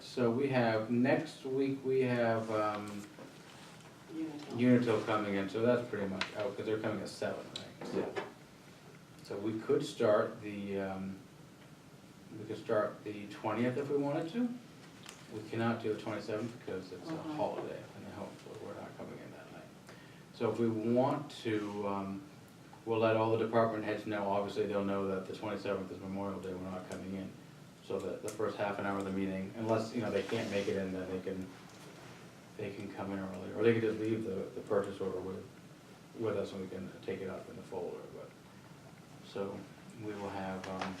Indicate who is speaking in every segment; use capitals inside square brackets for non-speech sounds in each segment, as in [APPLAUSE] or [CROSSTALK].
Speaker 1: So we have, next week, we have, um,
Speaker 2: Unitil.
Speaker 1: Unitil coming in, so that's pretty much out, because they're coming at seven, right?
Speaker 3: Yeah.
Speaker 1: So we could start the, um, we could start the twentieth if we wanted to. We cannot do the twenty-seventh because it's
Speaker 2: Uh-huh.
Speaker 1: a holiday, and hopefully we're not coming in that night. So if we want to, um, we'll let all the department heads know, obviously they'll know that the twenty-seventh is Memorial Day, we're not coming in. So that the first half an hour of the meeting, unless, you know, they can't make it in, then they can, they can come in early, or they can just leave the, the purchase order with, with us and we can take it up in the folder, but. So we will have, um,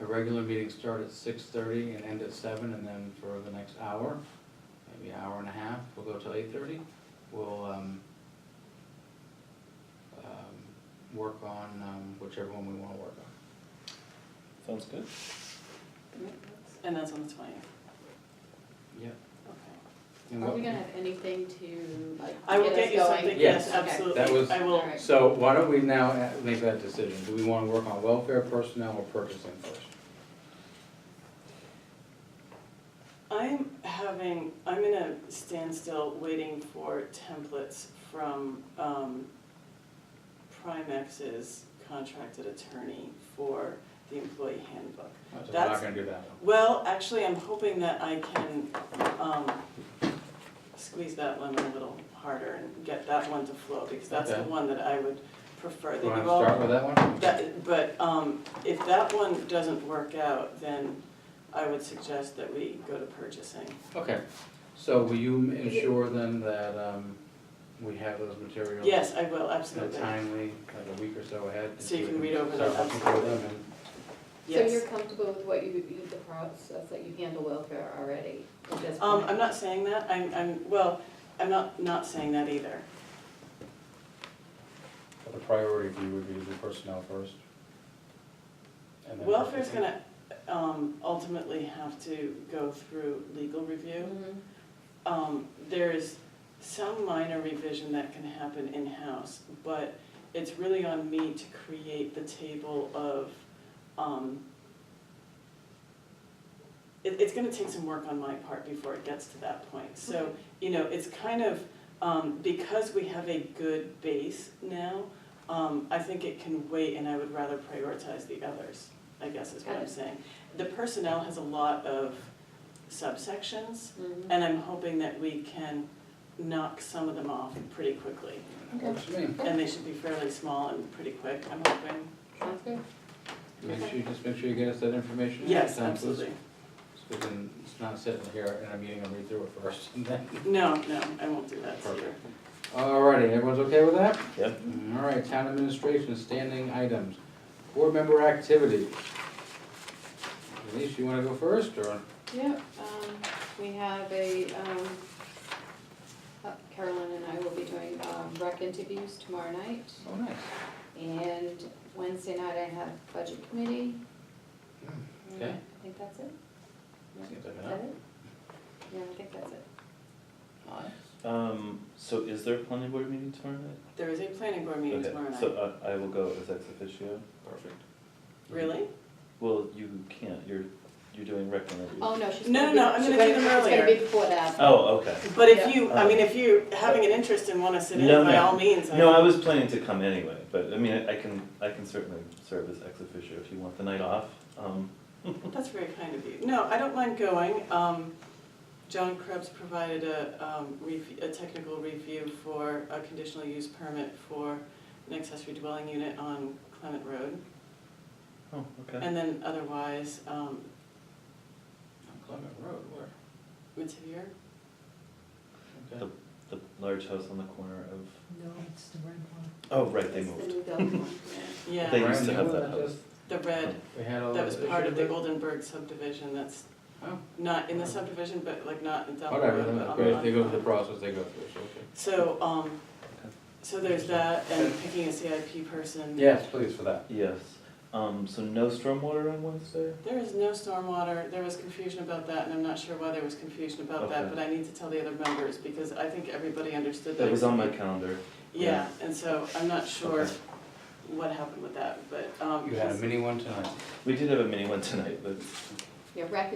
Speaker 1: a regular meeting start at six thirty and end at seven, and then for the next hour, maybe hour and a half, we'll go till eight thirty. We'll, um, um, work on, um, whichever one we wanna work on.
Speaker 3: Sounds good.
Speaker 2: And that's on the twentieth,
Speaker 1: Yeah.
Speaker 2: okay.
Speaker 1: And
Speaker 4: Are
Speaker 1: what-
Speaker 4: we gonna have anything to like
Speaker 2: I will
Speaker 4: get
Speaker 2: get you
Speaker 4: us going?
Speaker 2: something,
Speaker 1: Yes.
Speaker 2: yes,
Speaker 4: Okay.
Speaker 2: absolutely,
Speaker 1: That was-
Speaker 2: I will,
Speaker 4: Alright.
Speaker 1: So why don't we now uh, make that decision? Do we wanna work on welfare, personnel, or purchasing first?
Speaker 2: I'm having, I'm in a standstill waiting for templates from, um, Primex's contracted attorney for the employee handbook.
Speaker 1: So we're not
Speaker 2: That's-
Speaker 1: gonna do that one.
Speaker 2: Well, actually, I'm hoping that I can, um, squeeze that one a little harder and get that one to flow, because that's the
Speaker 1: Okay.
Speaker 2: one that I would prefer. that
Speaker 1: You wanna
Speaker 2: you've all-
Speaker 1: start with that one?
Speaker 2: That, but, um, if that one doesn't work out, then I would suggest that we go to purchasing.
Speaker 1: Okay, so will you ensure then that um, we have those materials?
Speaker 2: Yes, I will,
Speaker 1: In a
Speaker 2: absolutely.
Speaker 1: timely, like a week or so ahead?
Speaker 2: So you can read over
Speaker 1: Start
Speaker 2: them,
Speaker 1: looking for them
Speaker 2: absolutely.
Speaker 1: and-
Speaker 4: So you're
Speaker 2: Yes.
Speaker 4: comfortable with what you, you, the process that you handle welfare already at this
Speaker 2: Um,
Speaker 4: point?
Speaker 2: I'm not saying that, I'm, I'm, well, I'm not, not saying that either.
Speaker 1: but The priority for you would be the personnel first? and then-
Speaker 2: Welfare's gonna, um, ultimately have to go through legal review.
Speaker 4: Mhm.
Speaker 2: um, there is some minor revision that can happen in-house, but it's really on me to create the table of, um, it, it's gonna take some work on my part before it gets to that point, so, you know, it's kind of, um, because we have a good base now, um, I think it can wait and I would rather prioritize the others, I guess is what I'm
Speaker 4: Got it.
Speaker 2: saying. The personnel has a lot of subsections,
Speaker 4: Mhm.
Speaker 2: and I'm hoping that we can knock some of them off pretty quickly.
Speaker 1: Works for me.
Speaker 2: And they should be fairly small and pretty quick, I'm hoping.
Speaker 4: Sounds good.
Speaker 1: Make sure, you- just make sure you get us that information. ahead of
Speaker 2: Yes,
Speaker 1: time, please,
Speaker 2: absolutely.
Speaker 1: So we can, it's not sitting here in a meeting and read through it first [LAUGHS] and then.
Speaker 2: No, no, I won't do that to you.
Speaker 1: Perfect. Alrighty, everyone's okay with that?
Speaker 3: Yep.
Speaker 1: Alright, town administration, standing items, board member activities. Denise, you wanna go first, or?
Speaker 4: Yep, um, we have a, um, uh, Carolyn and I will be doing, um, rec interviews tomorrow night.
Speaker 1: Oh, nice.
Speaker 4: And Wednesday night I have budget committee. And
Speaker 1: Hmm. Okay.
Speaker 4: I think that's it.
Speaker 1: Seems like
Speaker 4: Is that
Speaker 1: enough.
Speaker 4: it? Yeah, I think that's it.
Speaker 1: Nice.
Speaker 3: Um, so is there a planning board meeting tomorrow night?
Speaker 2: There is a planning board meeting
Speaker 3: Okay,
Speaker 2: tomorrow night.
Speaker 3: So I, I will go as ex officio.
Speaker 1: Perfect.
Speaker 2: Really?
Speaker 3: Well, you can't, you're, you're doing rec interviews.
Speaker 4: Oh, no, she's.
Speaker 2: No, no,
Speaker 4: gonna be-
Speaker 2: no, I'm
Speaker 4: she's
Speaker 2: gonna do them
Speaker 4: It's gonna
Speaker 2: earlier.
Speaker 4: be before that.
Speaker 3: Oh, okay.
Speaker 2: But if
Speaker 4: Yeah.
Speaker 2: you, I mean, if you're having an interest and wanna sit in,
Speaker 3: No,
Speaker 2: by
Speaker 3: no.
Speaker 2: all means, I.
Speaker 3: No, I was planning to come anyway, but I mean, I I can, I can certainly serve as ex officio if you want the night off. Um,
Speaker 2: That's very kind of you. No, I don't mind going. Um, John Krebs provided a, um, rev- a technical review for a conditional use permit for an accessory dwelling unit on Clement Road.
Speaker 3: oh, okay.
Speaker 2: And then otherwise, um,
Speaker 1: Clement Road, where?
Speaker 2: Mativier,
Speaker 1: Okay.
Speaker 3: The large house on the corner of,
Speaker 5: No, it's the red one.
Speaker 3: oh, right, they
Speaker 4: It's the
Speaker 3: moved.
Speaker 4: new building one, yeah.
Speaker 2: yeah,
Speaker 3: They used to
Speaker 1: Brand
Speaker 3: have
Speaker 1: new,
Speaker 3: that house.
Speaker 1: just-
Speaker 2: the red,
Speaker 1: We had all.
Speaker 2: that was
Speaker 1: those
Speaker 2: part of the
Speaker 1: issues with
Speaker 2: Goldenberg subdivision, that's
Speaker 1: it? Oh,
Speaker 2: not in the subdivision, but like not in Delaware,
Speaker 1: Whatever,
Speaker 2: but
Speaker 1: then
Speaker 2: on
Speaker 1: that's
Speaker 2: the
Speaker 1: great, they go
Speaker 2: lot.
Speaker 1: through the process they go through, so, okay.
Speaker 2: So, um,
Speaker 3: Okay.
Speaker 2: so there's that, and picking a CIP person.
Speaker 1: Yes, please, for that.
Speaker 3: Yes, um, so no stormwater on Wednesday?
Speaker 2: There is no stormwater, there was confusion about that, and I'm not sure why there was confusion about that,
Speaker 3: Okay.
Speaker 2: but I need to tell the other members, because I think everybody understood that.
Speaker 3: That was on my calendar.
Speaker 2: Yeah, and so I'm not sure
Speaker 3: Okay.
Speaker 2: what happened with that, but, um.
Speaker 1: You had a mini one tonight.
Speaker 3: We did have a mini one tonight, but
Speaker 4: Yeah, rec